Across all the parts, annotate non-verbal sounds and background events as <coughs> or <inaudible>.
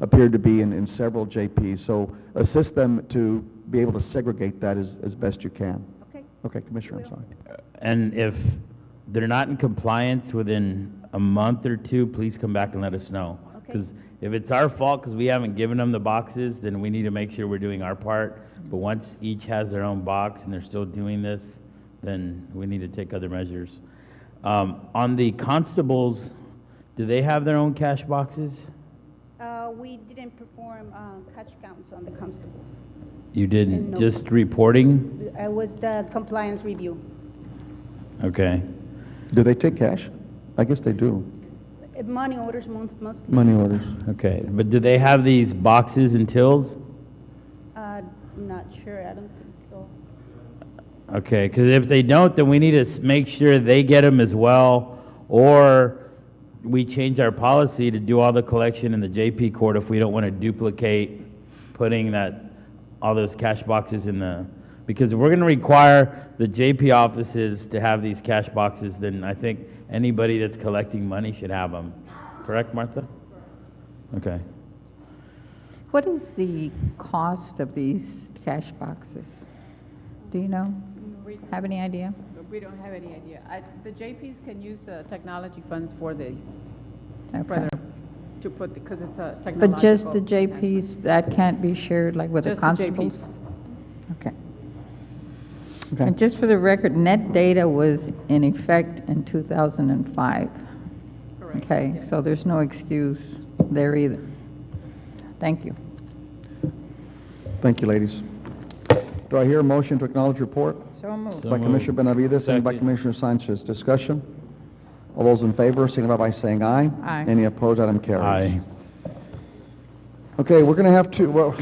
appeared to be in, in several JPs. So assist them to be able to segregate that as, as best you can. Okay. Okay, Commissioner, I'm Will. sorry. And if they're not in compliance within a month or two, please come back and let us know. Okay. Because if it's our fault because we haven't given them the boxes, then we need to make sure we're doing our part. But once each has their own box and they're still doing this, then we need to take other measures. Um, on the constables, do they have their own cash boxes? Uh, We didn't perform uh, catch counts on the constables. You didn't, No. just reporting? It was the compliance review. Okay. Do they take cash? I guess they do. Uh, Money orders mon- mostly. Money orders. Okay. But do they have these boxes and tills? Uh, Not sure, I don't think so. Okay, because if they don't, then we need to s- make sure they get them as well, or we change our policy to do all the collection in the JP court if we don't want to duplicate putting that, all those cash boxes in the, because if we're going to require the JP offices to have these cash boxes, then I think anybody that's collecting money should have them. Correct, Martha? Okay. What is the cost of these cash boxes? Do you know? We, Have any idea? we don't have any idea. I, the JPs can use the technology funds for these, for Okay. their, to put, because it's a technological. But just the enhancement. JPs, that can't be shared like with the Just the constables? JPs. Okay. Okay. And just for the record, net data was in effect in 2005. Correct, Okay, yes. so there's no excuse there either. Thank you. Thank you, ladies. Do I hear a motion to acknowledge report? So moved. By Commissioner Benavides, seconded by Second. Commissioner Sanchez. Discussion? All those in favor, signify by saying aye. Aye. Any opposed, item Aye. carries. Okay, we're going to have to, well, <coughs>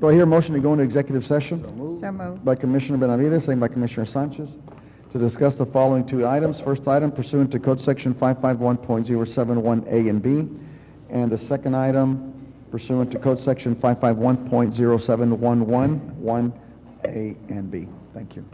do I hear a motion to go into executive session? So moved. By Commissioner Benavides, seconded by Commissioner Sanchez, to discuss the following two items. First item pursuant to Code Section 551.071A and B, and the second item pursuant to Code Section 551.07111A and B. Thank you.